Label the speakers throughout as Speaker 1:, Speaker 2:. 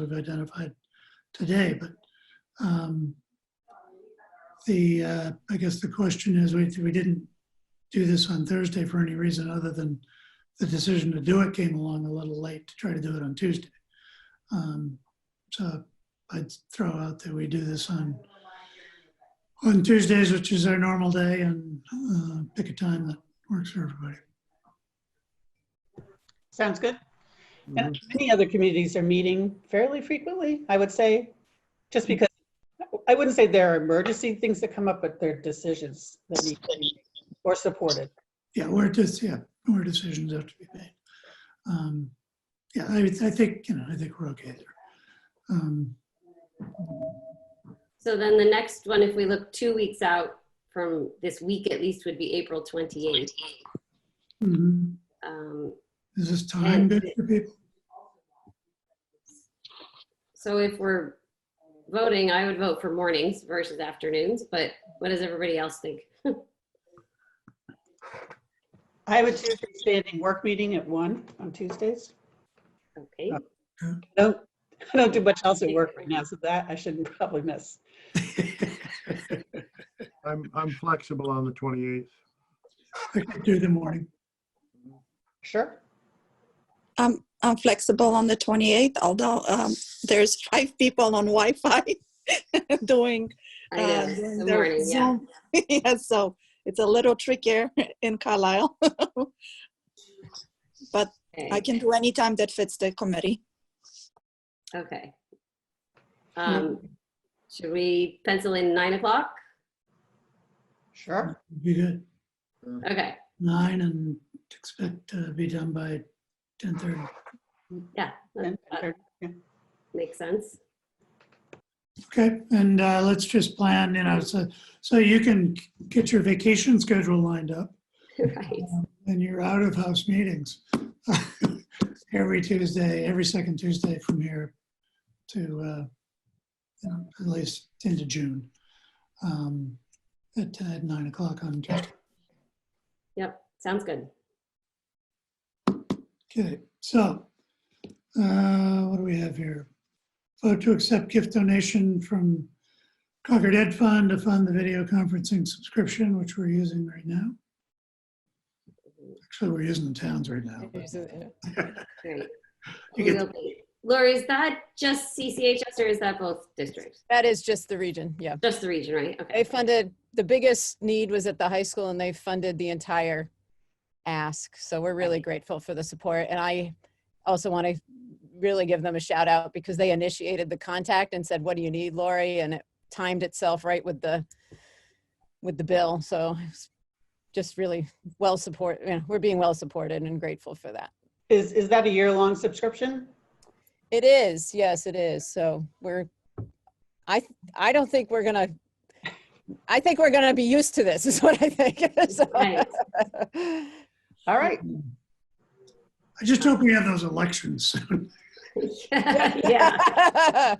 Speaker 1: we've identified today, but um, the, uh, I guess the question is, we, we didn't do this on Thursday for any reason other than the decision to do it came along a little late to try to do it on Tuesday. Um, So I'd throw out that we do this on, on Tuesdays, which is our normal day, and uh, pick a time that works for everybody.
Speaker 2: Sounds good. And many other communities are meeting fairly frequently, I would say, just because, I wouldn't say there are emergency things that come up, but they're decisions that need to be made or supported.
Speaker 1: Yeah, where just, yeah, where decisions have to be made. Um, Yeah, I, I think, you know, I think we're okay there. Um,
Speaker 3: So then the next one, if we look two weeks out from this week at least, would be April 28th.
Speaker 1: mhm.
Speaker 3: Um,
Speaker 1: Is this time good for people?
Speaker 3: So if we're voting, I would vote for mornings versus afternoons, but what does everybody else think?
Speaker 2: I would choose a standing work meeting at one on Tuesdays.
Speaker 3: Okay,
Speaker 1: Uh,
Speaker 2: I don't, I don't do much else at work right now, so that I shouldn't probably miss.
Speaker 4: I'm, I'm flexible on the 28th.
Speaker 1: I could do the morning.
Speaker 2: Sure.
Speaker 5: I'm, I'm flexible on the 28th, although um, there's five people on Wi-Fi doing,
Speaker 3: I
Speaker 5: uh,
Speaker 3: know,
Speaker 5: doing
Speaker 3: the
Speaker 5: their
Speaker 3: morning, yeah.
Speaker 5: Zoom. yeah, so it's a little trickier in Carlisle. but I
Speaker 3: Okay,
Speaker 5: can do any time that fits the committee.
Speaker 3: Okay. Um, Should we pencil in nine o'clock?
Speaker 2: Sure.
Speaker 1: Be good. Mm.
Speaker 3: Okay,
Speaker 1: Nine and expect to be done by 10:30.
Speaker 3: yeah, that
Speaker 2: Then- yeah.
Speaker 3: makes sense.
Speaker 1: Okay, and uh, let's just plan, you know, so, so you can get your vacation schedule lined up
Speaker 3: Right,
Speaker 1: and your out-of-house meetings. Every Tuesday, every second Tuesday from here to, uh, you know, at least into June. um, At uh, nine o'clock on Tuesday.
Speaker 3: yep, sounds good.
Speaker 1: Okay, so, uh, what do we have here? Vote to accept gift donation from Concord Ed Fund to fund the video conferencing subscription, which we're using right now. Actually, we're using the towns right now. but- You
Speaker 3: Great. We
Speaker 1: get-
Speaker 3: will be. Lori, is that just CCHS or is that both districts?
Speaker 6: That is just the region, yeah.
Speaker 3: Just the region, right? Okay.
Speaker 6: They funded, the biggest need was at the high school and they funded the entire ask. So we're really grateful for the support. And I also want to really give them a shout out because they initiated the contact and said, what do you need, Lori? And it timed itself right with the, with the bill. So it's just really well support, you know, we're being well supported and grateful for that.
Speaker 2: Is, is that a year-long subscription?
Speaker 6: It is, yes, it is. So we're, I, I don't think we're gonna, I think we're gonna be used to this is what I think. So-
Speaker 3: Right.
Speaker 2: All right.
Speaker 1: I just hope we have those elections soon.
Speaker 3: Yeah.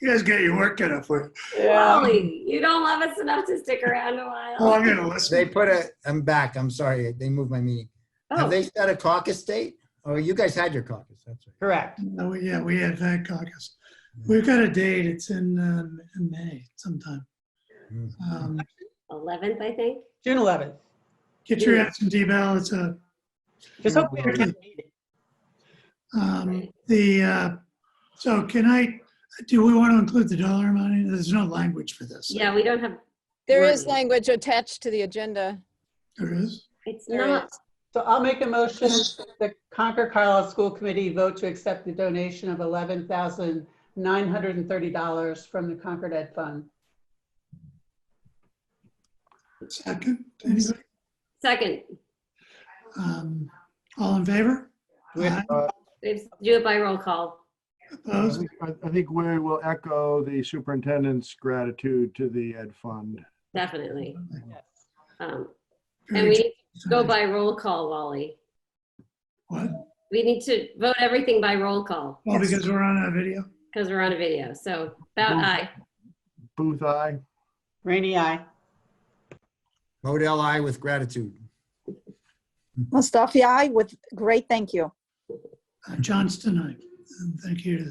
Speaker 1: You guys get your work cut out for you.
Speaker 3: Lori, you don't love us enough to stick around a
Speaker 1: Oh, I'm
Speaker 3: while.
Speaker 1: gonna
Speaker 7: They
Speaker 1: listen.
Speaker 7: put a, I'm back, I'm sorry, they moved my meeting. Have
Speaker 3: Oh,
Speaker 7: they set a caucus date? Oh, you guys had your caucus, that's right.
Speaker 2: Correct.
Speaker 1: No, we- Oh, Yeah, we have that caucus. We've got a date, it's in, um, in May sometime.
Speaker 7: Mm.
Speaker 1: Um,
Speaker 3: 11th, I think.
Speaker 2: June 11th.
Speaker 1: Get your absentee ballots up.
Speaker 2: Just hope we are not meeting.
Speaker 1: Um, The, uh, so can I, do we want to include the dollar amount? There's no language for this.
Speaker 3: Yeah, we don't have,
Speaker 6: There is
Speaker 3: Wording.
Speaker 6: language attached to the agenda.
Speaker 1: There is?
Speaker 3: it's
Speaker 6: There
Speaker 3: not,
Speaker 2: So I'll make a motion that the Concord Carlisle School Committee vote to accept the donation of eleven thousand nine hundred and thirty dollars from the Concord Ed Fund.
Speaker 1: Second? Anybody?
Speaker 3: second,
Speaker 1: Um, All in favor?
Speaker 7: We have, uh,
Speaker 3: Let's do it by roll call.
Speaker 4: I
Speaker 1: Opposed?
Speaker 4: think- I I think we will echo the superintendent's gratitude to the Ed Fund.
Speaker 3: Definitely. Um, And
Speaker 1: Very
Speaker 3: we need to go by roll call, Wally.
Speaker 1: What?
Speaker 3: We need to vote everything by roll call
Speaker 1: Well, because we're on a video.
Speaker 3: because we're on a video. So about aye.
Speaker 4: Booth, aye.
Speaker 2: Rainy eye.
Speaker 7: Model I with gratitude.
Speaker 5: Mustafi, I with great thank you.
Speaker 1: Uh, John's tonight. And thank you to the